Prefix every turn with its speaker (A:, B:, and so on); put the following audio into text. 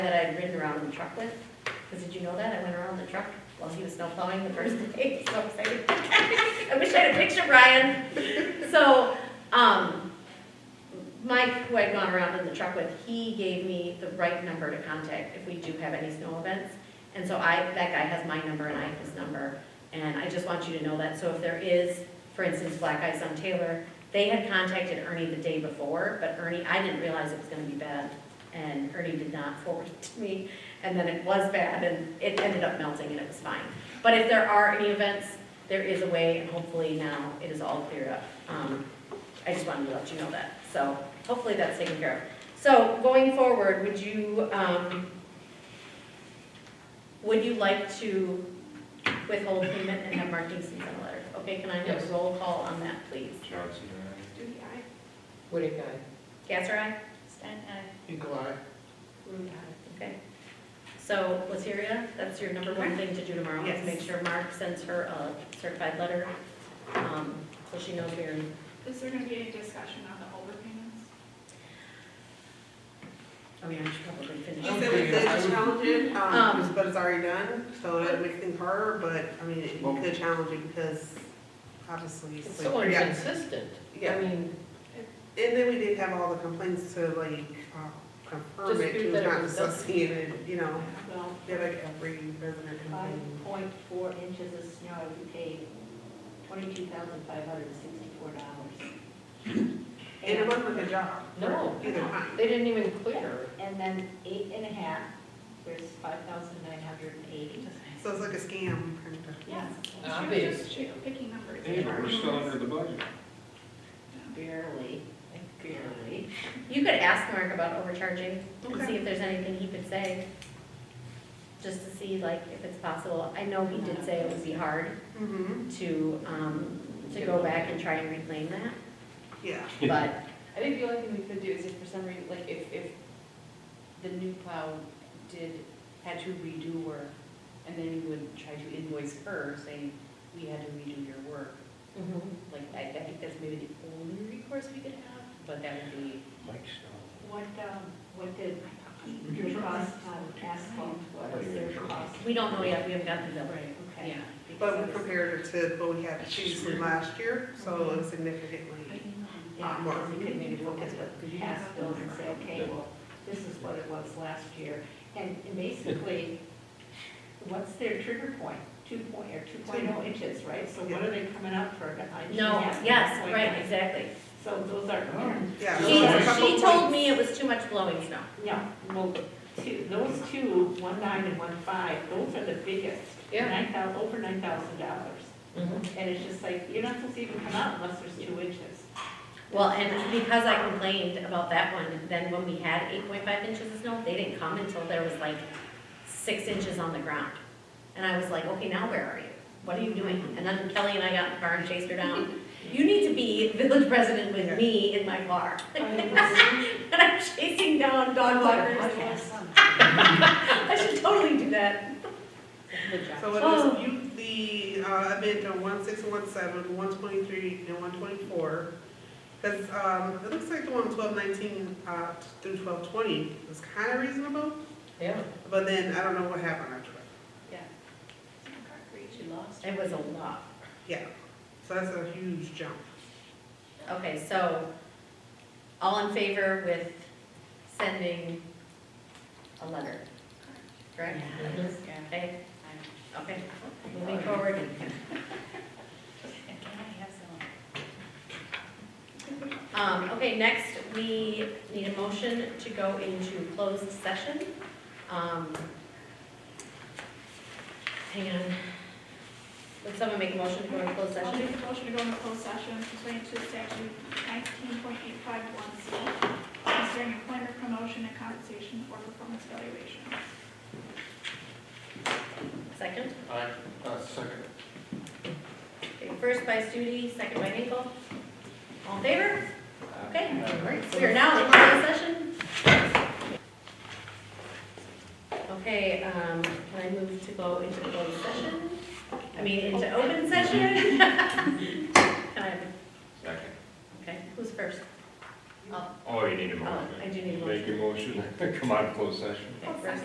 A: that I'd ridden around in the truck with, because did you know that? I went around in the truck while he was snow plowing the first day, so excited. I wish I had a picture, Brian. So, um, Mike, who I'd gone around in the truck with, he gave me the right number to contact if we do have any snow events. And so I, that guy has my number and I have his number, and I just want you to know that, so if there is, for instance, black ice on Taylor, they had contacted Ernie the day before, but Ernie, I didn't realize it was gonna be bad and Ernie did not forward it to me, and then it was bad, and it ended up melting, and it was fine. But if there are any events, there is a way, and hopefully now it is all cleared up. Um, I just wanted to let you know that, so hopefully that's taken care of. So going forward, would you, um, would you like to withhold payment and have Mark Dixon send a letter? Okay, can I have
B: Yes.
A: a roll call on that, please?
C: Johnson,
A: Duty, aye.
B: Whitick, aye.
A: Gasser, aye? Stein, aye.
B: Hinkle, aye.
A: Okay. So, Latiria, that's your number one thing to do tomorrow, is
D: Yes.
A: make sure Mark sends her a certified letter, um, so she knows we're,
D: Is there gonna be any discussion on the overpayments?
A: I mean, I should probably finish.
E: She said it's it's challenging,
A: Um,
E: um, but it's already done, so that makes things harder, but, I mean, it
C: Well-
E: could challenge it because obviously
B: It's
E: it's
B: so
E: like, yeah.
B: inconsistent. I
E: Yeah,
B: mean,
E: and then we did have all the complaints to like, uh, confirm it,
B: Dispute
E: it
B: that
E: was
B: it
E: not
B: was done.
E: associated, you know,
F: Well,
E: they're like every resident
F: five
E: complained.
F: point four inches of snow, you pay twenty-two thousand five hundred and sixty-four dollars.
E: And it wasn't a good job.
B: No.
E: Either time.
B: they didn't even clear.
F: And then eight and a half, there's five thousand nine hundred and eighty.
E: So it's like a scam, kind of.
F: Yes.
D: She
B: Obvious.
D: was just she- picking numbers.
C: Hey, but we're still under the budget.
F: Barely, barely.
A: You could ask Mark about overcharging and
E: Okay.
A: see if there's anything he could say, just to see like if it's possible. I know he did say it would be hard
E: Mm-hmm,
A: to, um, to go back and try and reclaim that,
E: yeah.
A: but,
G: I think the only thing we could do is if for some reason, like if, if the new plow did, had to redo work, and then we would try to invoice her saying, we had to redo your work.
E: Mm-hmm.
G: Like, I, I think that's maybe the only recourse we could have, but that would be,
C: Mike's still.
F: What, um, what did your cost on asphalt, what was their cost?
A: we don't know yet, we haven't gotten the bill.
F: Right, okay.
G: yeah.
E: But we
F: Because-
E: compared it to what we had previously last year, so it's significantly,
F: Yeah,
E: Um, or-
F: because you could maybe look at the past bills and say, okay, well, this is what it was last year. And and basically, what's their trigger point? Two point, or two point oh inches, right? So what are they coming up for? an inch and a
A: No,
F: half,
A: yes,
F: 1.9?
A: right, exactly.
F: So those are,
E: yeah.
A: She,
E: it was like a couple
A: she told
E: points.
A: me it was too much blowing snow.
F: yeah, well, two, those two, one nine and one five, those are the biggest.
B: Yeah.
F: Nine thousand, over nine thousand dollars. And it's just like, you're not supposed to even come out unless there's two inches.
A: Well, and because I complained about that one, then when we had eight point five inches of snow, they didn't come until there was like six inches on the ground. And I was like, okay, now where are you? What are you doing? And then Kelly and I got in the car and chased her down. You need to be village president with me in my car. And I'm chasing down dog walkers. I should totally do that.
E: So it was you, the, uh, event on one six one seven, one twenty-three, and one twenty-four. Cause, um, it looks like the one twelve nineteen, uh, through twelve twenty was kinda reasonable,
B: Yeah.
E: but then I don't know what happened after that.
G: She lost.
A: It was a lot.
E: Yeah, so that's a huge jump.
A: Okay, so, all in favor with sending a letter, correct? Okay, okay, moving forward. Um, okay, next, we need a motion to go into closed session. Um, Hang on. Would someone make a motion to go into closed
D: I'll
A: session?
D: make a motion to go into closed session pursuant to statute nineteen point eight five one C concerning employment promotion and compensation or performance evaluation.
A: Second?
C: Aye, uh, second.
A: Okay, First by Studi, second by Hinkle. All in favor? Okay, all right, so we are now in closed session. Okay, um, can I move to go into closed session? I mean, into open session? Can I,
C: Second.
A: okay, who's first?
C: Oh, you need a
A: Oh, I
C: motion.
A: do need a
C: Make
A: motion.
C: a motion.
H: Come on, closed session.
C: Okay, first